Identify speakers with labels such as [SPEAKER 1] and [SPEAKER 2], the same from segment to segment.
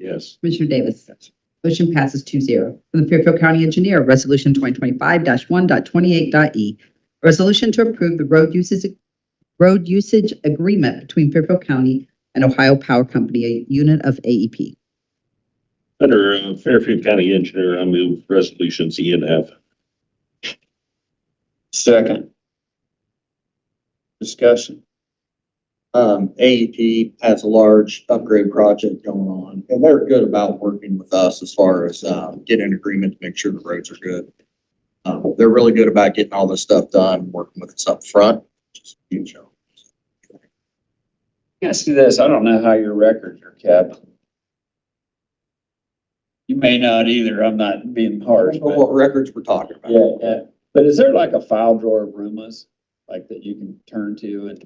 [SPEAKER 1] Yes.
[SPEAKER 2] Commissioner Davis? Motion passes 2-0 From the Fairfield County Engineer, Resolution 2025-1.28.e. E. A resolution to approve the road uses, road usage agreement between Fairfield County and Ohio Power Company, a E unit of AEP.
[SPEAKER 1] Under uh, Fairfield County Engineer, I move resolutions E and F.
[SPEAKER 3] Second. Discussion. Um,
[SPEAKER 4] E
[SPEAKER 3] AEP has a large upgrade project going on, and they're good about working with us as far as, um, getting an agreement to make sure the roads are good. Um, they're really good about getting all this stuff done, working with us up front. Just a huge help.
[SPEAKER 4] Ask you this, I don't know how your records are kept. You may not either, I'm not being
[SPEAKER 3] I
[SPEAKER 4] harsh,
[SPEAKER 3] don't know
[SPEAKER 4] but,
[SPEAKER 3] what records we're talking about.
[SPEAKER 4] yeah, yeah. But is there like a file drawer of rumors, like that you can turn to and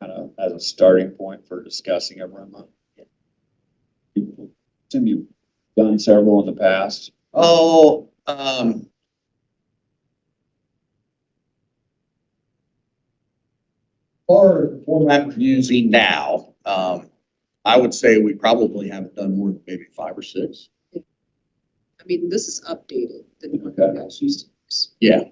[SPEAKER 4] kind of as a starting point for discussing a rumor? Assume you've done several in the past.
[SPEAKER 3] Oh, um. Or the format we're using now, um, I would say we probably haven't done more than maybe five or six.
[SPEAKER 5] I mean, this is updated than what
[SPEAKER 4] Okay.
[SPEAKER 5] you guys used to.
[SPEAKER 3] Yeah. And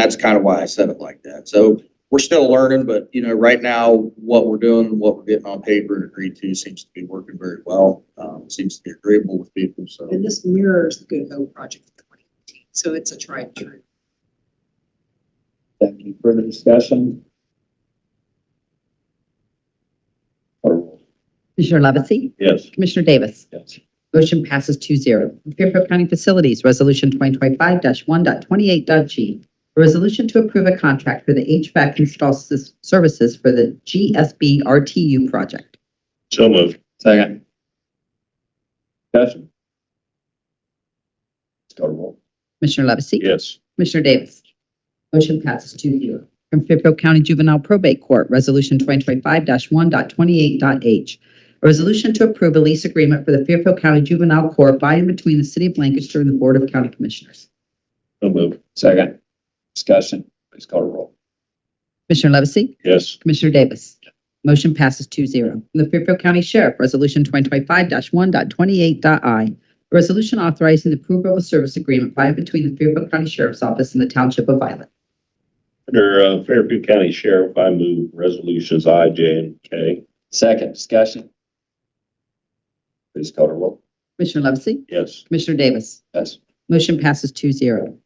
[SPEAKER 3] that's kind of why I said it like that. So we're still learning, but you know, right now, what we're doing, and what we're getting on paper and agreed to seems to be working very well. Um, seems to be agreeable with people, so.
[SPEAKER 5] And this mirrors the Good Hope project of twenty eighteen, so it's a tried and true.
[SPEAKER 4] Thank you. Further discussion? Or-
[SPEAKER 2] Commissioner Levesey?
[SPEAKER 1] Yes.
[SPEAKER 2] Commissioner Davis?
[SPEAKER 4] Yes.
[SPEAKER 2] Motion passes 2-0 Fairfield County Facilities, Resolution 2025-1.28.g. A resolution to approve a contract for the HVAC install sys- services for the GSB RTU project.
[SPEAKER 1] So moved.
[SPEAKER 4] Second. Discussion? Let's go to roll.
[SPEAKER 2] Commissioner Levesey?
[SPEAKER 1] Yes.
[SPEAKER 2] Commissioner Davis? Motion passes 2-0 From Fairfield County Juvenile Probate Court, Resolution 2025-1.28.h. A resolution to approve a lease agreement for the Fairfield County Juvenile Court by and between the City of Lancaster and the Board of County Commissioners.
[SPEAKER 1] So moved.
[SPEAKER 4] Second. Discussion? Please call to roll.
[SPEAKER 2] Commissioner Levesey?
[SPEAKER 1] Yes.
[SPEAKER 2] Commissioner Davis. Motion passes 2-0 From the Fairfield County Sheriff, Resolution 2025-1.28.i. A resolution authorizing the approval of a service agreement by and between the Fairfield County Sheriff's Office and the Township of Violet.
[SPEAKER 1] Under uh, Fairfield County Sheriff, I move resolutions I, J, and K.
[SPEAKER 4] Second. Discussion? Please call to roll.
[SPEAKER 2] Commissioner Levesey?
[SPEAKER 1] Yes.
[SPEAKER 2] Commissioner Davis?
[SPEAKER 4] Yes.
[SPEAKER 2] Motion passes 2-0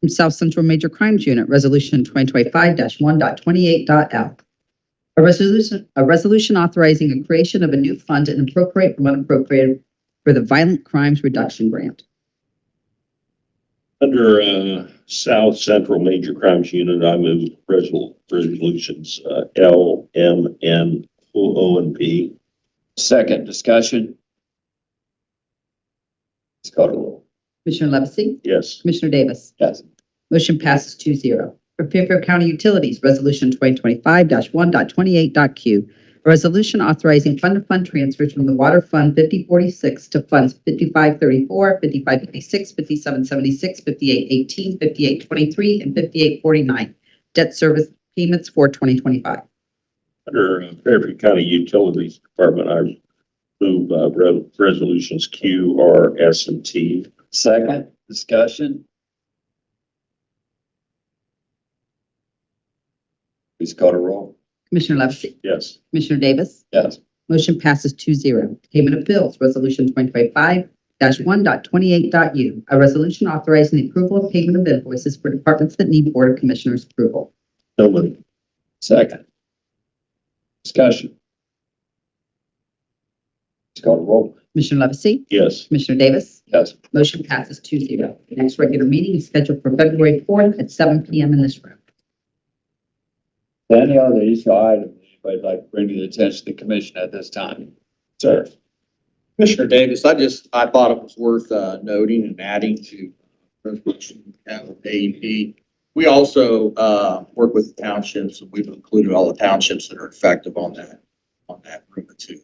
[SPEAKER 2] From South Central Major Crimes Unit, Resolution 2025-1.28.l. A resolution, a resolution authorizing the creation of a new fund and appropriate from unappropriated for the Violent Crimes Reduction Grant.
[SPEAKER 1] Under uh, South Central Major Crimes Unit, I move resol- resolutions uh, L, M, N, O, O, and P.
[SPEAKER 4] Second. Discussion? Please call to roll.
[SPEAKER 2] Commissioner Levesey?
[SPEAKER 1] Yes.
[SPEAKER 2] Commissioner Davis?
[SPEAKER 4] Yes.
[SPEAKER 2] Motion passes 2-0 For Fairfield County Utilities, Resolution 2025-1.28.q. A resolution authorizing fund-to-fund transfers from the Water Fund 5046 to Funds 5534, 5556, 5776, 5818, 5823, and 5849. Debt service payments for 2025.
[SPEAKER 1] Under uh, Fairfield County Utilities Department, I move uh, re- resolutions Q, R, S, and T.
[SPEAKER 4] Second. Discussion? Please call to roll.
[SPEAKER 2] Commissioner Levesey?
[SPEAKER 1] Yes.
[SPEAKER 2] Commissioner Davis?
[SPEAKER 4] Yes.
[SPEAKER 2] Motion passes 2-0. Payment of bills, Resolution 2025-1.28.u. A resolution authorizing the approval of payment of invoices for departments that need Board of Commissioners approval.
[SPEAKER 1] So moved.
[SPEAKER 4] Second. Discussion. Please call to roll.
[SPEAKER 2] Commissioner Levesey?
[SPEAKER 1] Yes.
[SPEAKER 2] Commissioner Davis?
[SPEAKER 4] Yes.
[SPEAKER 2] Motion passes 2-0. The next regular meeting is scheduled for February 4th at seven PM in this room.
[SPEAKER 4] Any other issue item anybody like to bring to the attention of the commission at this time? Sir.
[SPEAKER 3] Commissioner Davis, I just, I thought it was worth uh, noting and adding to uh, resolution we have with AEP. We also uh, work with townships, and we've included all the townships that are effective on that, on that route too.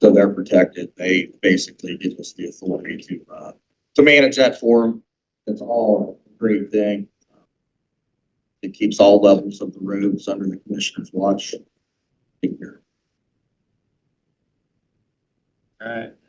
[SPEAKER 3] So they're protected. They basically give us the authority to, uh, to manage that for them. It's all a great thing. It keeps all levels of the roads under the commissioner's watch. Take care.
[SPEAKER 4] All right.